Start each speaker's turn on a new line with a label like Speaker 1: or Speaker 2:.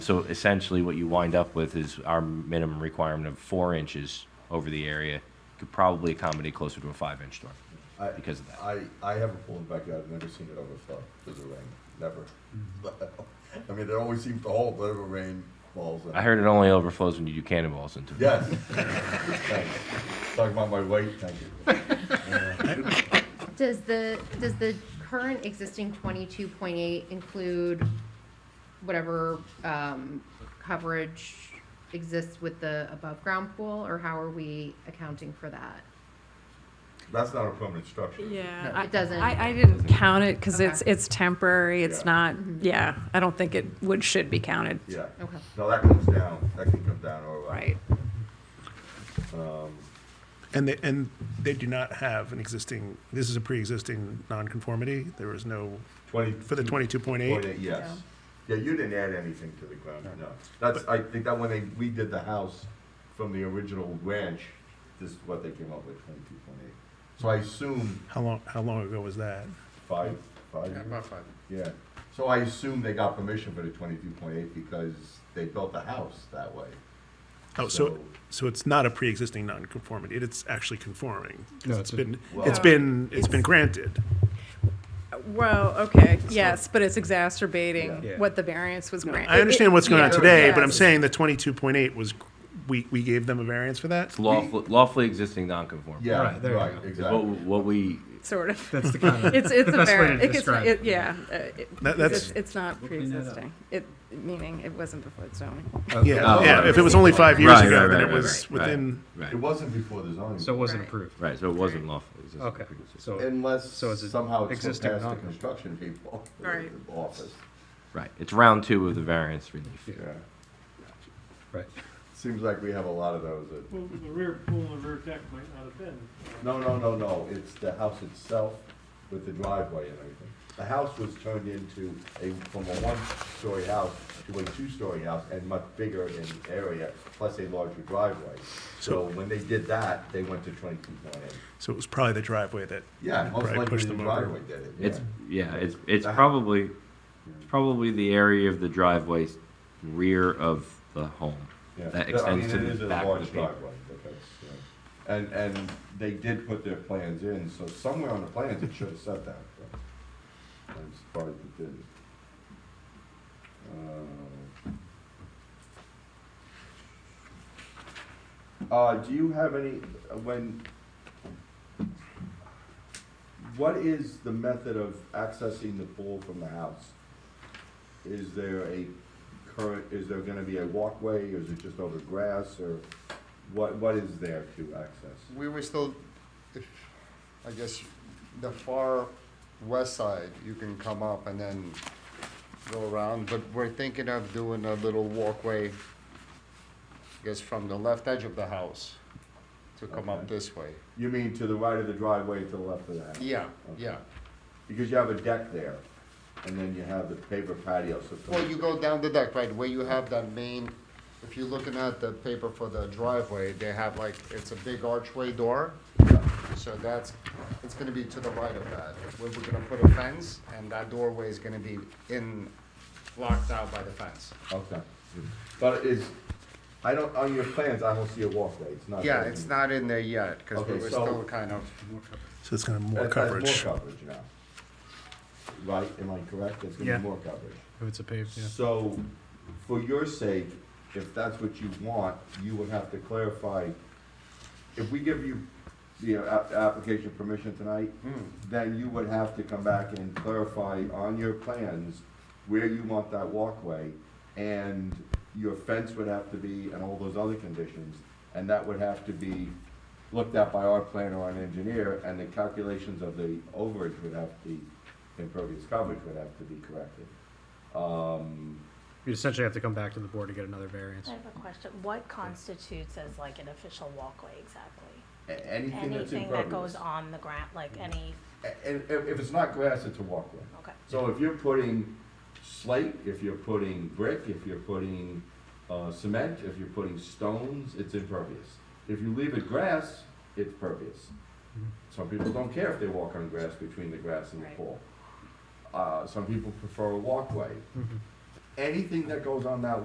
Speaker 1: So essentially, what you wind up with is our minimum requirement of four inches over the area could probably accommodate closer to a five-inch storm
Speaker 2: I-
Speaker 1: because of that.
Speaker 2: I, I have a pool in the backyard, I've never seen it overflow because of rain, never.
Speaker 3: Mm-hmm.
Speaker 2: I mean, it always seems to hold whatever rain falls in.
Speaker 1: I heard it only overflows when you do cannonballs into it.
Speaker 2: Yes. Thanks. Talking about my weight, thank you.
Speaker 4: Does the, does the current existing twenty-two point eight include whatever, um, coverage exists with the above-ground pool, or how are we accounting for that?
Speaker 2: That's not a permanent structure.
Speaker 4: No,
Speaker 5: Yeah.
Speaker 4: It doesn't.
Speaker 5: I, I didn't count it because it's,
Speaker 4: Okay.
Speaker 5: it's temporary. It's
Speaker 2: Yeah.
Speaker 5: not,
Speaker 3: Mm-hmm.
Speaker 5: yeah, I don't think it would, should be counted.
Speaker 2: Yeah.
Speaker 4: Okay.
Speaker 2: No, that comes down, that can come down or.
Speaker 5: Right.
Speaker 3: And they, and they do not have an existing, this is a pre-existing nonconformity. There was no,
Speaker 2: Twenty.
Speaker 3: for the twenty-two point
Speaker 2: Point
Speaker 3: eight.
Speaker 2: eight, yes. Yeah, you didn't add anything to the ground, no. That's, I think that when they, we did the house from the original ranch, this is what they came up with, twenty-two point eight. So I assume
Speaker 3: How long, how long ago was that?
Speaker 2: five, five.
Speaker 6: About five.
Speaker 2: Yeah, so I assume they got permission for the twenty-two point eight because they built the house that way.
Speaker 3: Oh, so, so it's not a pre-existing nonconformity. It's actually conforming. 'cause
Speaker 6: No,
Speaker 3: It's
Speaker 6: it's a-
Speaker 3: been,
Speaker 2: Well-
Speaker 3: it's been, it's been granted.
Speaker 5: Well, okay, yes, but it's exacerbating
Speaker 6: Yeah.
Speaker 5: what the variance was granted.
Speaker 3: I understand what's going on
Speaker 5: Yeah.
Speaker 3: today, but I'm
Speaker 5: Yes.
Speaker 3: saying the twenty-two point eight was, we, we gave them a variance for that?
Speaker 1: It's lawful, lawfully existing nonconformity.
Speaker 2: Yeah,
Speaker 6: Right, there you
Speaker 2: right,
Speaker 6: go.
Speaker 1: What,
Speaker 2: exactly.
Speaker 1: what we,
Speaker 5: Sort of.
Speaker 6: That's the kind of.
Speaker 5: It's, it's a
Speaker 6: The best way to
Speaker 5: variance. It's,
Speaker 6: describe
Speaker 5: it,
Speaker 6: it.
Speaker 5: yeah. uh, it-
Speaker 3: That-
Speaker 5: it's-
Speaker 3: that's-
Speaker 5: It's not
Speaker 6: clean that up.
Speaker 5: pre-existing. It, meaning it wasn't before the zoning.
Speaker 3: Yeah,
Speaker 1: Oh,
Speaker 3: yeah,
Speaker 1: right,
Speaker 3: if it was only five years
Speaker 1: Right,
Speaker 3: ago,
Speaker 1: right,
Speaker 3: then
Speaker 1: right, right,
Speaker 3: it was
Speaker 1: right, right.
Speaker 3: within,
Speaker 1: right,
Speaker 2: It wasn't before the zoning.
Speaker 6: So it wasn't
Speaker 4: Right.
Speaker 6: approved.
Speaker 1: right, so it wasn't lawfully existing.
Speaker 6: Okay, so,
Speaker 2: Unless
Speaker 6: So is it
Speaker 2: somehow it's
Speaker 6: existing
Speaker 2: passed the
Speaker 6: non-con-
Speaker 2: construction people. in the
Speaker 5: Right.
Speaker 2: Office,
Speaker 1: Right, it's round two of the variance relief.
Speaker 6: Yeah.
Speaker 2: yeah.
Speaker 6: right.
Speaker 2: Seems like we have a lot of those. that-
Speaker 7: Well, the rear pool and rear deck might not have been.
Speaker 2: No, no, no, no, it's the house itself with the driveway and everything. The house was turned into a, from a one-story house to a two-story house and much bigger in area, plus a larger driveway. So when they did that, they went to twenty-two point eight.
Speaker 3: so it was probably the driveway that,
Speaker 2: Yeah, most
Speaker 3: Probably
Speaker 2: likely
Speaker 3: pushed
Speaker 2: the
Speaker 3: them over.
Speaker 2: driveway did it,
Speaker 1: It's,
Speaker 2: yeah. Uh-huh.
Speaker 1: yeah, it's, it's
Speaker 2: That-
Speaker 1: probably, it's probably the area of the driveway rear of the home.
Speaker 2: Yeah.
Speaker 1: That
Speaker 2: No, I mean,
Speaker 1: extends to
Speaker 2: it is
Speaker 1: the
Speaker 2: a
Speaker 1: back
Speaker 2: large
Speaker 1: of the paper.
Speaker 2: driveway, but that's, yeah. And, and they did put their plans in, so somewhere on the plans it should have said that, but I'm surprised it didn't. Uh, Uh, do you have any, uh, when, what is the method of accessing the pool from the house? Is there a current, is there gonna be a walkway, or is it just over grass, or what, what is there to access?
Speaker 8: We were still, if, I guess, the far west side, you can come up and then go around, but we're thinking of doing a little walkway, I guess, from the left edge of the house to come up
Speaker 2: Okay.
Speaker 8: this way.
Speaker 2: You mean to the right of the driveway, to the left of the house?
Speaker 8: Yeah,
Speaker 2: Okay.
Speaker 8: yeah.
Speaker 2: Because you have a deck there, and then you have the paper patio, so. it's-
Speaker 8: Well, you go down the deck, right, where you have that main, if you're looking at the paper for the driveway, they have like, it's a big archway door. So that's, it's gonna be to the right of that, where we're gonna put a fence, and that doorway is gonna be in, blocked out by the fence.
Speaker 2: Okay, but is, I don't, on your plans, I don't see a walkway, it's not.
Speaker 8: Yeah, it's not in there yet, cause
Speaker 2: Okay,
Speaker 8: we were
Speaker 2: so-
Speaker 8: still kind of,
Speaker 3: so it's kind of more
Speaker 2: That's- that's
Speaker 3: coverage.
Speaker 2: More coverage now. Right, am I correct? There's gonna
Speaker 6: Yeah.
Speaker 2: be more coverage.
Speaker 6: If it's a paved, yeah.
Speaker 2: So, for your sake, if that's what you want, you would have to clarify, if we give you the a- application permission tonight, then you would have to come back and clarify on your plans where you want that walkway, and your fence would have to be, and all those other conditions, and that would have to be looked at by our planner or an engineer, and the calculations of the overage would have to be, impervious coverage would have to be corrected. Um,
Speaker 6: You essentially have to come back to the board to get another variance.
Speaker 9: I have a question. What constitutes as like an official walkway exactly?
Speaker 2: a- anything that's
Speaker 9: Anything that goes
Speaker 2: impervious. Mm-hmm.
Speaker 9: on the ground, like any,
Speaker 2: A- And if, if it's not grass, it's a walkway.
Speaker 9: okay.
Speaker 2: So if you're putting slate, if you're putting brick, if you're putting, uh, cement, if you're putting stones, it's impervious. If you leave it grass, it's pervious. Some people don't care if they walk on grass between the grass and the
Speaker 9: Right.
Speaker 2: pool. Uh, some people prefer a walkway. Anything that goes on that